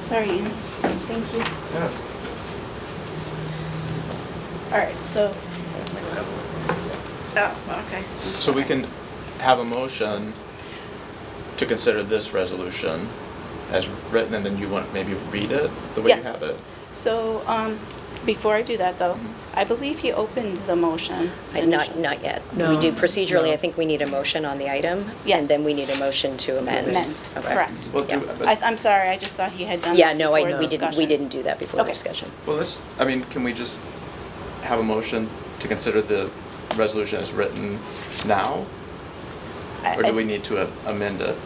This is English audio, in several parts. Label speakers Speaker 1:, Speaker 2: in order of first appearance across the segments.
Speaker 1: Sorry, Ian. Thank you.
Speaker 2: Yeah.
Speaker 1: All right, so, oh, okay.
Speaker 2: So we can have a motion to consider this resolution as written, and then you want, maybe read it the way you
Speaker 1: Yes.
Speaker 2: have it? Mm-hmm.
Speaker 1: So, um, before I do that though, I believe he opened the motion.
Speaker 3: I- Not, not yet. We
Speaker 4: No.
Speaker 3: do procedurally,
Speaker 4: No.
Speaker 3: I think we need a motion on the item. And
Speaker 1: Yes.
Speaker 3: then we need a motion to amend.
Speaker 1: Amend,
Speaker 3: Okay.
Speaker 1: correct.
Speaker 2: Well, do-
Speaker 3: Yeah.
Speaker 1: I, I'm sorry, I just thought he had done
Speaker 3: Yeah,
Speaker 1: that
Speaker 3: no, I-
Speaker 1: before
Speaker 3: we didn't, we
Speaker 1: discussion.
Speaker 3: didn't do that before the
Speaker 1: Okay.
Speaker 3: discussion.
Speaker 2: Well, let's, I mean, can we just have a motion to consider the resolution as written now?
Speaker 1: I-
Speaker 2: Or do
Speaker 1: I-
Speaker 2: we need to a- amend it?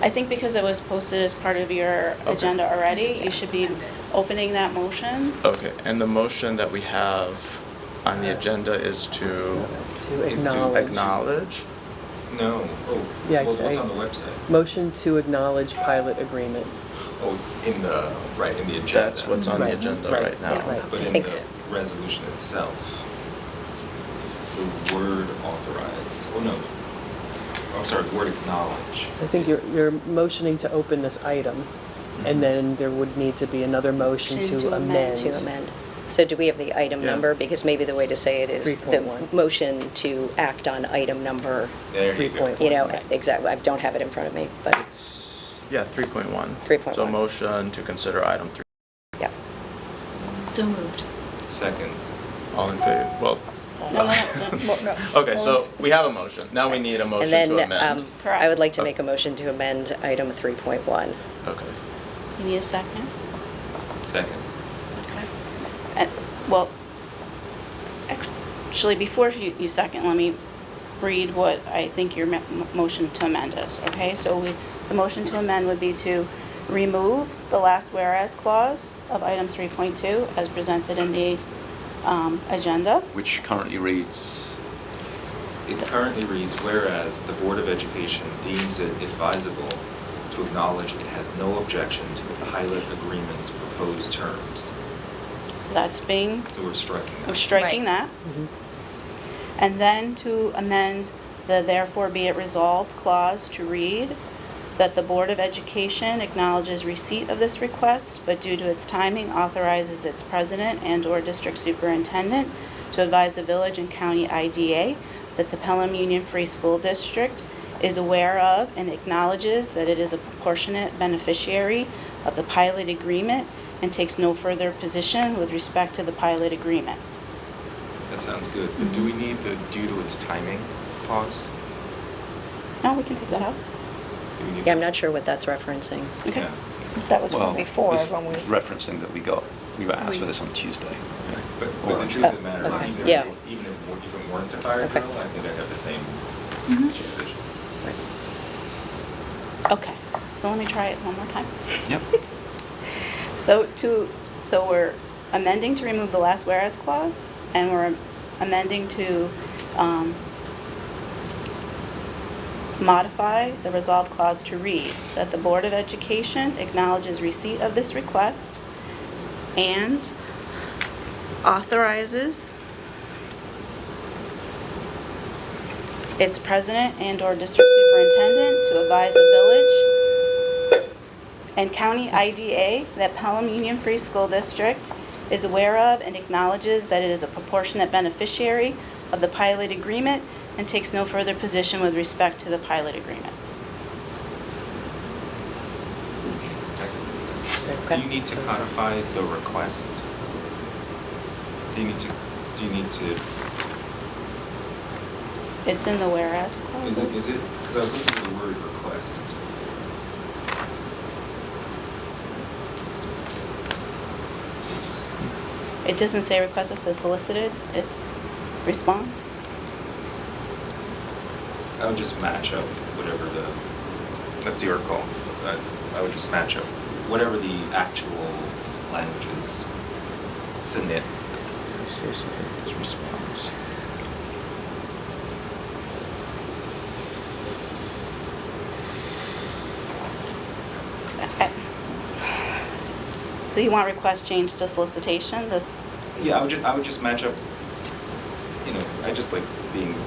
Speaker 1: I think because it was posted as part of your
Speaker 2: Okay.
Speaker 1: agenda already, you should be opening that motion.
Speaker 2: Okay, and the motion that we have on the agenda is to
Speaker 4: To
Speaker 5: Is to
Speaker 4: acknowledge.
Speaker 2: acknowledge?
Speaker 5: No, oh,
Speaker 4: Yeah,
Speaker 5: well, what's
Speaker 4: I-
Speaker 5: on the website?
Speaker 4: Motion to acknowledge pilot agreement.
Speaker 5: Oh, in the, right, in the agenda.
Speaker 2: That's what's on the
Speaker 4: Right,
Speaker 2: agenda
Speaker 4: right,
Speaker 2: right now.
Speaker 4: right.
Speaker 5: But
Speaker 3: I
Speaker 5: in
Speaker 3: think-
Speaker 5: the resolution itself, the word authorize, oh no, I'm sorry, the word acknowledge.
Speaker 4: So I think you're, you're motioning to open this item, and then there would need to be another motion
Speaker 1: Motion
Speaker 4: to
Speaker 1: to amend.
Speaker 4: amend.
Speaker 3: To amend. So do we have the item
Speaker 2: Yeah.
Speaker 3: number? Because maybe the way to say it is the
Speaker 4: 3.1.
Speaker 3: motion to act on item number,
Speaker 5: There you go.
Speaker 4: 3.1.
Speaker 3: you know,
Speaker 4: Right.
Speaker 3: exactly, I don't have it in front of me, but,
Speaker 2: It's, yeah, three point one. So
Speaker 3: 3.1.
Speaker 2: motion to consider item three.
Speaker 3: yeah.
Speaker 6: So moved.
Speaker 5: Second,
Speaker 2: All in favor? Well,
Speaker 1: No, no, no, mo- no.
Speaker 2: okay, so we have a motion. Now we need a motion
Speaker 3: And
Speaker 2: to
Speaker 3: then,
Speaker 2: amend.
Speaker 3: um, I
Speaker 1: Correct.
Speaker 3: would like to make a motion to amend item 3.1.
Speaker 2: Okay.
Speaker 1: You need a second?
Speaker 5: second.
Speaker 1: Okay. And- Well, actually, before you you second, let me read what I think your mo- motion to amend is, okay? So we, the motion to amend would be to remove the last whereas clause of item 3.2 as presented in the um, agenda.
Speaker 7: which currently reads,
Speaker 5: It currently reads, whereas the Board of Education deems it advisable to acknowledge it has no objection to the pilot agreement's proposed terms.
Speaker 1: So that's being,
Speaker 5: So we're striking
Speaker 4: Oh,
Speaker 5: that.
Speaker 1: we're striking
Speaker 6: Right.
Speaker 1: that. And then to amend the therefore be it resolved clause to read that the Board of Education acknowledges receipt of this request, but due to its timing authorizes its president and/or district superintendent to advise the village and county IDA that the Pelham Union Free School District is aware of and acknowledges that it is a proportionate beneficiary of the pilot agreement and takes no further position with respect to the pilot agreement.
Speaker 5: That sounds good. But do we need the due to its timing clause?
Speaker 1: Now, we can take that out.
Speaker 5: Do we need
Speaker 3: Yeah, I'm
Speaker 5: that?
Speaker 3: not sure what that's referencing.
Speaker 1: Okay.
Speaker 5: Yeah.
Speaker 8: That was
Speaker 7: well,
Speaker 8: from before
Speaker 7: this
Speaker 8: when we.
Speaker 7: is referencing that we got, we were asked for
Speaker 1: We-
Speaker 7: this on Tuesday.
Speaker 5: But,
Speaker 7: Or-
Speaker 5: but the truth of the matter
Speaker 3: okay.
Speaker 5: is, even
Speaker 3: Yeah.
Speaker 5: if, you- even if, we- if it weren't a fire
Speaker 3: Okay.
Speaker 5: drill, I think I'd have the same position.
Speaker 1: Okay, so let me try it one more time.
Speaker 7: Yep.
Speaker 1: So to, so we're amending to remove the last whereas clause, and we're amending to um, modify the resolve clause to read that the Board of Education acknowledges receipt of this request and authorizes its president and/or district superintendent to advise the village and County IDA that Pelham Union Free School District is aware of and acknowledges that it is a proportionate beneficiary of the pilot agreement and takes no further position with respect to the pilot agreement.
Speaker 5: Do you need to codify the request? Do you need to, do you need to,
Speaker 1: It's in the whereas
Speaker 5: is it, is
Speaker 1: clauses.
Speaker 5: it, because I was looking at the word request.
Speaker 1: It doesn't say request, it says solicited, it's response.
Speaker 5: I would just match up whatever the, that's your call. I, I would just match up whatever the actual language is. It's a nit.
Speaker 2: Say something, it's response.
Speaker 1: I- So you want request changed to solicitation, this,
Speaker 5: Yeah, I would just, I would just match up, you know, I just like being